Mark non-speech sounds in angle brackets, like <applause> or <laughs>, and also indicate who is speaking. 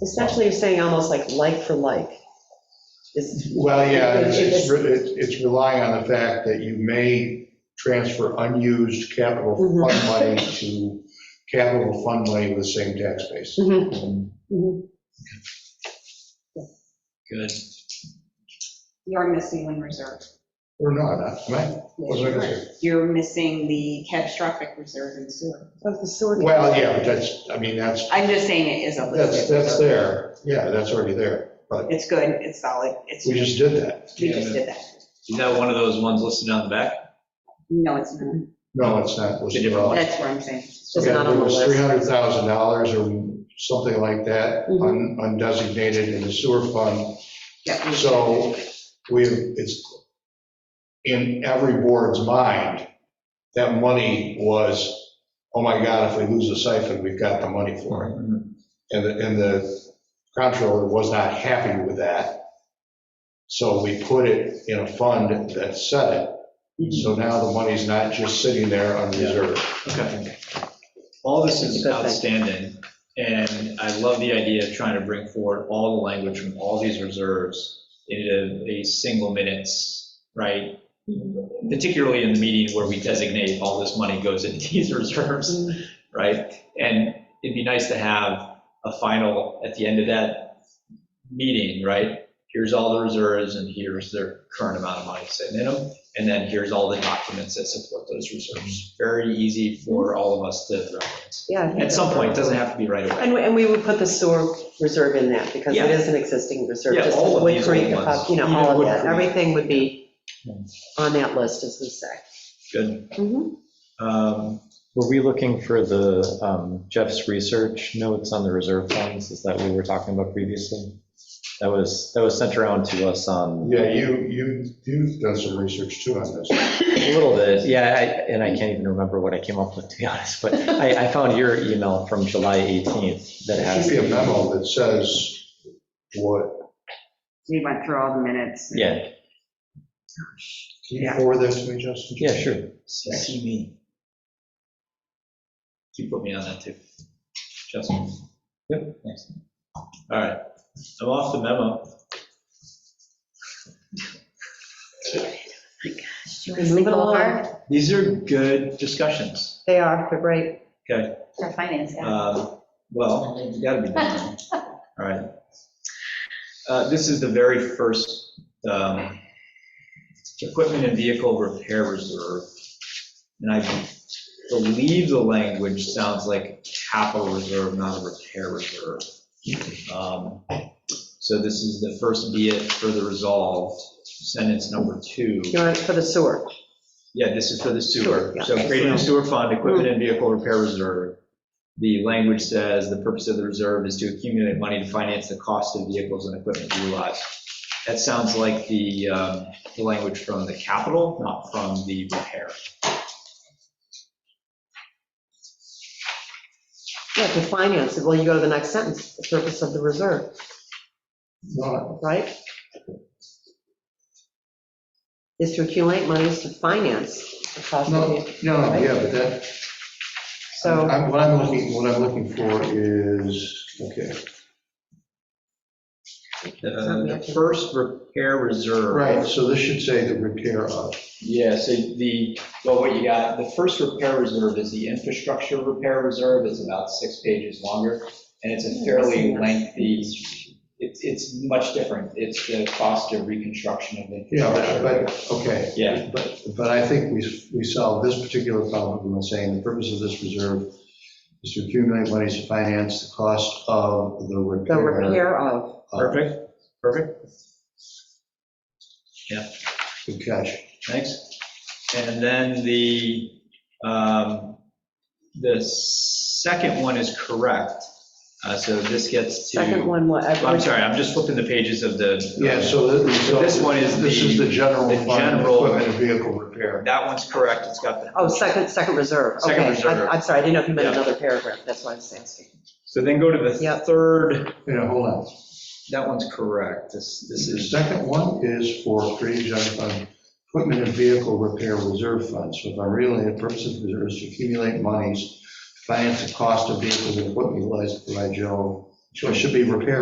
Speaker 1: Essentially, you're saying almost like like for like. Is-
Speaker 2: Well, yeah, it's- it's, re- it's it's relying on the fact that you may transfer unused capital fund money to capital fund money with the same tax base.
Speaker 1: Mhm, mhm.
Speaker 3: Good.
Speaker 4: You're missing one reserve.
Speaker 2: Or not, am I? What's I gonna say?
Speaker 4: You're missing the catastrophic reserve in sewer.
Speaker 1: Of the sewer.
Speaker 2: Well, yeah, but that's, I mean, that's,
Speaker 4: I'm just saying it is a little
Speaker 2: that's,
Speaker 4: bit.
Speaker 2: that's there. Yeah, that's already there.
Speaker 4: It's good, it's solid, it's,
Speaker 2: We
Speaker 4: we
Speaker 2: just did that.
Speaker 4: just did that.
Speaker 3: Is that one of those ones listed on the back?
Speaker 4: No, it's not.
Speaker 2: No, it's not listed at all.
Speaker 4: That's what I'm saying.
Speaker 1: It's just not on the
Speaker 2: It was
Speaker 1: list.
Speaker 2: $300,000 or something like that,
Speaker 1: Mm-hmm.
Speaker 2: un- undesignated in the sewer fund.
Speaker 4: Yeah, we-
Speaker 2: So we, it's in every board's mind, that money was, oh my God, if we lose the siphon, we've got the money for it. And the, and the comptroller was not happy with that. So we put it in a fund that set it.
Speaker 1: Mm-hmm.
Speaker 2: So now the money's not just sitting there unreserved.
Speaker 3: Okay. All this is outstanding, and I love the idea of trying to bring forward all the language from all these reserves into a single minutes, right? Particularly in the meeting where we designate all this money goes into <laughs> these reserves, right? And it'd be nice to have a final, at the end of that meeting, right? Here's all the reserves, and here's their current amount of money sitting in them. And then here's all the documents that support those reserves. Very easy for all of us to reference.
Speaker 1: Yeah. I think
Speaker 3: At some
Speaker 1: that's-
Speaker 3: point, it doesn't have to be right away.
Speaker 1: And, we- and we would put the sewer reserve in that, because it
Speaker 3: Yeah.
Speaker 1: is an existing reserve.
Speaker 3: Yeah,
Speaker 1: just
Speaker 3: all of
Speaker 1: Wood
Speaker 3: these
Speaker 1: Creek,
Speaker 3: old
Speaker 1: uh,
Speaker 3: ones.
Speaker 1: You know,
Speaker 3: Even
Speaker 1: all of
Speaker 3: Wood
Speaker 1: that,
Speaker 3: Creek.
Speaker 1: everything would be on that list, as we say.
Speaker 3: Good.
Speaker 1: Mhm.
Speaker 3: Um,
Speaker 5: Were we looking for the um, Jeff's research notes on the reserve funds? Is that what we were talking about previously? That was, that was sent around to us on,
Speaker 2: Yeah, you, you, you've done some research too on this.
Speaker 5: a little bit, yeah, I- and I can't even remember what I came up with, to be honest, but I, I found your email from July 18th that
Speaker 2: There
Speaker 5: has.
Speaker 2: should be a memo that says what,
Speaker 4: We went through all the minutes.
Speaker 5: Yeah,
Speaker 2: can you forward that to me, Justin?
Speaker 5: yeah, sure.
Speaker 3: CC me. You put me on that too. Justin. Yep. Thanks. All right. I'm off the memo.
Speaker 1: You can Move it along.
Speaker 3: These are good discussions.
Speaker 1: They are, they're great.
Speaker 3: Okay.
Speaker 6: For finance, yeah.
Speaker 3: Uh, Well, you gotta be done. All right. Uh, This is the very first um, equipment and vehicle repair reserve. And I believe the language sounds like capital reserve, not a repair reserve. Um, So this is the first be it further resolved, sentence number two.
Speaker 1: You want it for the sewer.
Speaker 3: Yeah, this is for the sewer.
Speaker 1: Sewer, yeah.
Speaker 3: So creating a sewer fund, equipment and vehicle repair reserve. The language says the purpose of the reserve is to accumulate money to finance the cost of vehicles and equipment utilized. That sounds like the, um, the language from the capital, not from the repair.
Speaker 1: Yeah, to finance it, well, you go to the next sentence, the purpose of the reserve,
Speaker 2: No,
Speaker 1: right? Is to accumulate monies to finance the cost of
Speaker 2: no,
Speaker 1: the,
Speaker 2: no, Oh, yeah, but that,
Speaker 1: so.
Speaker 2: I'm- What I'm looking, what I'm looking for is, okay,
Speaker 3: Uh, The the first repair reserve.
Speaker 2: right, so this should say the repair of.
Speaker 3: Yeah, so the, well, what you got, the first repair reserve is the infrastructure repair reserve, it's about six pages longer, and it's
Speaker 1: Hmm,
Speaker 3: a fairly lengthy, it's, it's much different, it's the cost of reconstruction of the
Speaker 2: Yeah,
Speaker 3: infrastructure.
Speaker 2: but, okay.
Speaker 3: Yeah.
Speaker 2: But, but I think we, we solved this particular problem by saying the purpose of this reserve is to accumulate monies to finance the cost of the
Speaker 3: Uh,
Speaker 1: The
Speaker 2: repair.
Speaker 1: repair of,
Speaker 2: of-
Speaker 3: Perfect, perfect,
Speaker 2: Good catch.
Speaker 3: thanks. And then the, um, the second one is correct, uh, so this gets to.
Speaker 1: second one, what?
Speaker 3: I'm sorry, I'm just flipping the pages of the.
Speaker 2: Yeah, so this, so
Speaker 3: This one is
Speaker 2: This is the general
Speaker 3: the
Speaker 2: fund,
Speaker 3: general-
Speaker 2: equipment and vehicle repair.
Speaker 3: That one's correct, it's got the.
Speaker 1: Oh, second, second reserve.
Speaker 3: Second
Speaker 1: Okay, I-
Speaker 3: reserve.
Speaker 1: I'm sorry, I didn't know if you meant
Speaker 3: Yeah.
Speaker 1: another paragraph, that's why I was asking.
Speaker 3: So then go to the
Speaker 1: Yep.
Speaker 3: third,
Speaker 2: Yeah, hold on.
Speaker 3: that one's correct, this, this
Speaker 2: The
Speaker 3: is,
Speaker 2: second one is for creating general fund, equipment and vehicle repair reserve fund. So if I'm reading it, the purpose of the reserve is to accumulate monies, to finance the cost of vehicles and equipment utilized to provide general So it should be repair